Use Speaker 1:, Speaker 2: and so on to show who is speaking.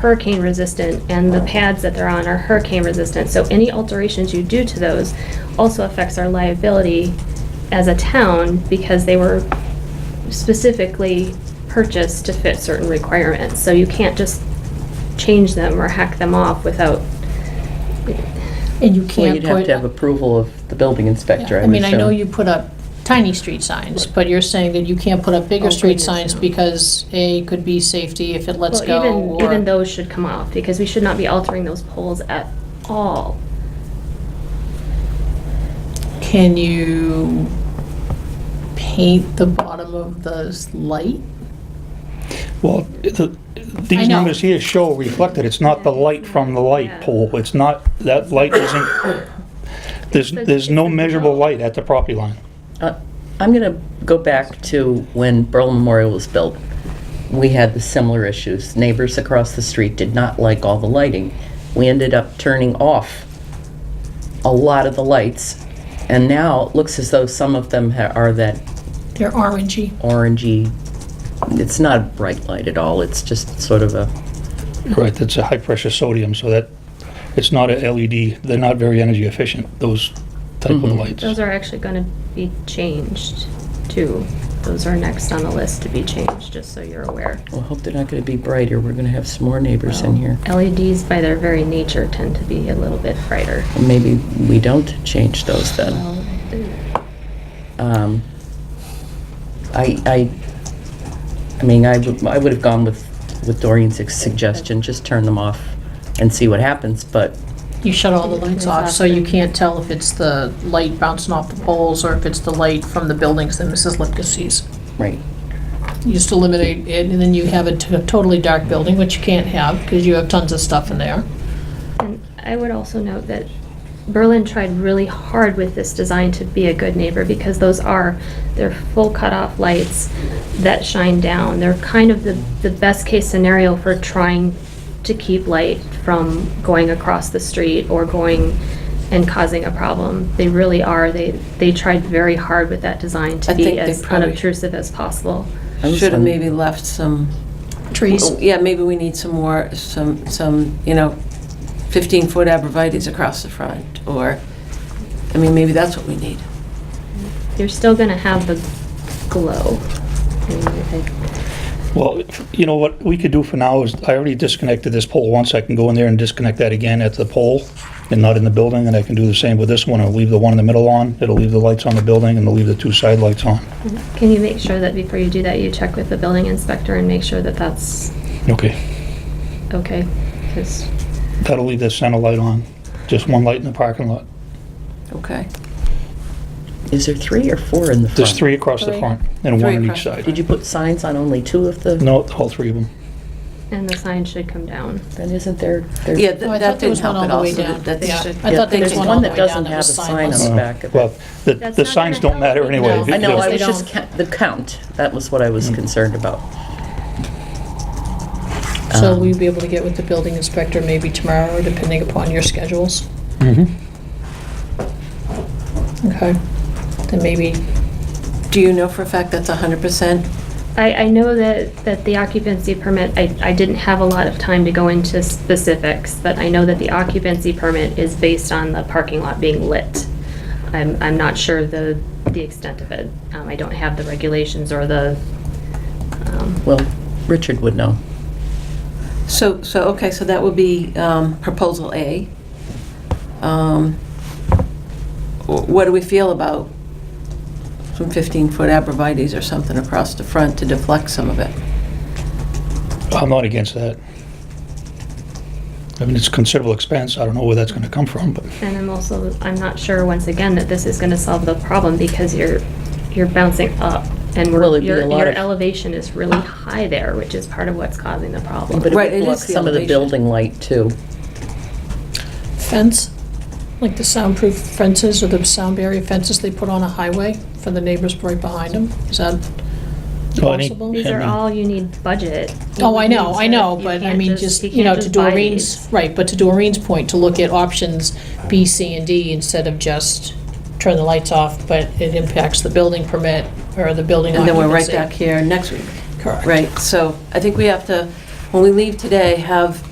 Speaker 1: hurricane resistant and the pads that they're on are hurricane resistant. So any alterations you do to those also affects our liability as a town because they were specifically purchased to fit certain requirements. So you can't just change them or hack them off without,
Speaker 2: And you
Speaker 3: Well,
Speaker 2: can't
Speaker 3: you'd have
Speaker 2: put.
Speaker 3: to have approval of the building inspector,
Speaker 2: Yeah,
Speaker 3: I
Speaker 2: I
Speaker 3: would
Speaker 2: mean, I know
Speaker 3: assume.
Speaker 2: you put up tiny street signs, but you're saying that you can't put up bigger
Speaker 3: Oh,
Speaker 2: street
Speaker 3: goodness,
Speaker 2: signs
Speaker 3: no.
Speaker 2: because A, could be safety if it lets
Speaker 1: well,
Speaker 2: go,
Speaker 1: even,
Speaker 2: or.
Speaker 1: even those should come off because we should not be altering those poles at all.
Speaker 2: Can you paint the bottom of the s- light?
Speaker 4: Well, the-
Speaker 2: I
Speaker 4: these
Speaker 2: know.
Speaker 4: numbers here show reflected, it's not the light from the light pole, it's not, that light isn't, there's,
Speaker 1: It's the-
Speaker 4: there's
Speaker 1: it's
Speaker 4: no
Speaker 1: the
Speaker 4: measurable
Speaker 1: bulb.
Speaker 4: light at the property line.
Speaker 3: Uh, I'm gonna go back to when Berlin Memorial was built. We had the similar issues. Neighbors across the street did not like all the lighting. We ended up turning off a lot of the lights, and now it looks as though some of them ha- are that
Speaker 2: They're orangey.
Speaker 3: orangey, it's not a bright light at all, it's just sort of a,
Speaker 4: Right, that's a high-pressure sodium, so that, it's not a LED, they're not very energy efficient, those type of lights.
Speaker 1: Those are actually gonna be changed too. Those are next on the list to be changed, just so you're aware.
Speaker 3: well, I hope they're not gonna be brighter, we're gonna have some more neighbors in here.
Speaker 1: LEDs E by their very nature tend to be a little bit brighter.
Speaker 3: Maybe we don't change those then.
Speaker 1: Well,
Speaker 3: Um, I, I, I mean, I would, I would have gone with, with Doreen's suggestion, just turn them off and see what happens, but
Speaker 2: You shut all the lights off, so you can't tell if it's the light bouncing off the poles or if it's the light from the buildings that Mrs. Lipka sees.
Speaker 3: Right.
Speaker 2: You just eliminate it, and then you have a t- totally dark building, which you can't have, because you have tons of stuff in there.
Speaker 1: And I would also note that Berlin tried really hard with this design to be a good neighbor because those are, they're full cutoff lights that shine down. They're kind of the, the best case scenario for trying to keep light from going across the street or going and causing a problem. They really are. They, they tried very hard with that design to
Speaker 5: I think
Speaker 1: be
Speaker 5: they
Speaker 1: as
Speaker 5: probably-
Speaker 1: unobtrusive as possible.
Speaker 3: I was
Speaker 5: Should have
Speaker 3: on-
Speaker 5: maybe left some,
Speaker 2: Trees.
Speaker 5: oh, yeah, maybe we need some more, some, some, you know, 15-foot abrevieties across the front, or, I mean, maybe that's what we need.
Speaker 1: You're still gonna have the glow. And I-
Speaker 4: Well, you know, what we could do for now is, I already disconnected this pole once, I can go in there and disconnect that again at the pole and not in the building, and I can do the same with this one, I'll leave the one in the middle on, it'll leave the lights on the building, and it'll leave the two side lights on.
Speaker 1: Can you make sure that before you do that, you check with the building inspector and make sure that that's
Speaker 4: Okay,
Speaker 1: okay? Because
Speaker 4: that'll leave the center light on, just one light in the parking lot.
Speaker 5: Okay.
Speaker 3: Is there three or four in the front?
Speaker 4: There's three across the front and one
Speaker 5: Three
Speaker 4: on each
Speaker 5: across.
Speaker 4: side.
Speaker 3: Did you put signs on only two of the?
Speaker 4: No, all three of them.
Speaker 1: and the sign should come down.
Speaker 3: Then isn't there? there-
Speaker 5: Yeah,
Speaker 2: Oh, I
Speaker 5: th-
Speaker 2: thought
Speaker 5: that
Speaker 2: there
Speaker 5: didn't
Speaker 2: was one
Speaker 5: help
Speaker 2: all
Speaker 5: at
Speaker 2: the
Speaker 5: all.
Speaker 2: way
Speaker 5: so
Speaker 2: down.
Speaker 5: that-
Speaker 2: Yeah.
Speaker 5: that should-
Speaker 2: I thought there
Speaker 3: There's
Speaker 2: was one
Speaker 3: one
Speaker 2: all the
Speaker 3: that
Speaker 2: way down
Speaker 3: doesn't
Speaker 2: that
Speaker 3: have a
Speaker 2: was
Speaker 3: sign on
Speaker 2: signless.
Speaker 3: the
Speaker 4: Uh,
Speaker 3: back of it.
Speaker 4: Well, the,
Speaker 1: That's
Speaker 4: the
Speaker 1: not
Speaker 4: signs
Speaker 1: gonna
Speaker 4: don't matter
Speaker 1: help.
Speaker 4: anyway.
Speaker 2: No,
Speaker 3: I know, I
Speaker 2: They
Speaker 3: was just,
Speaker 2: don't.
Speaker 3: ca- the count, that was what I was
Speaker 4: Mm.
Speaker 3: concerned about.
Speaker 2: So will you be able to get with the building inspector maybe tomorrow, depending upon your schedules?
Speaker 4: Mm-hmm.
Speaker 2: Okay, then maybe,
Speaker 5: Do you know for a fact that's 100%?
Speaker 1: I, I know that, that the occupancy permit, I, I didn't have a lot of time to go into specifics, but I know that the occupancy permit is based on the parking lot being lit. I'm, I'm not sure the, the extent of it. Um, I don't have the regulations or the, um,
Speaker 3: Well, Richard would know.
Speaker 5: So, so, okay, so that would be um, proposal A. Um, wh- What do we feel about some 15-foot abrevieties or something across the front to deflect some of it?
Speaker 4: I'm not against that. I mean, it's considerable expense. I don't know where that's gonna come from, but
Speaker 1: And I'm also, I'm not sure, once again, that this is gonna solve the problem because you're, you're bouncing up and
Speaker 3: Well,
Speaker 1: we're,
Speaker 3: it'd be a
Speaker 1: your,
Speaker 3: lot
Speaker 1: your
Speaker 3: of-
Speaker 1: elevation is really high there, which is part of what's causing the problem.
Speaker 3: But it
Speaker 5: Right,
Speaker 3: would
Speaker 5: it
Speaker 3: block
Speaker 5: is the
Speaker 3: some of the
Speaker 5: elevation.
Speaker 3: building light too.
Speaker 2: fence, like the soundproof fences or the sound barrier fences they put on a highway for the neighbors right behind them? Is that
Speaker 4: Well, I need-
Speaker 2: possible?
Speaker 1: These are
Speaker 4: Yeah.
Speaker 1: all, you need budget.
Speaker 2: Oh, I know, I know,
Speaker 1: You
Speaker 2: but I
Speaker 1: can't
Speaker 2: mean, just, you
Speaker 1: can't
Speaker 2: know, to
Speaker 1: just buy
Speaker 2: Doreen's,
Speaker 1: these.
Speaker 2: right, but to Doreen's point, to look at options B, C, and D instead of just turn the lights off, but it impacts the building permit or the building
Speaker 5: And then
Speaker 2: occupancy.
Speaker 5: we're right back here next week,
Speaker 2: Correct.
Speaker 5: right? So I think we have to, when we leave today, have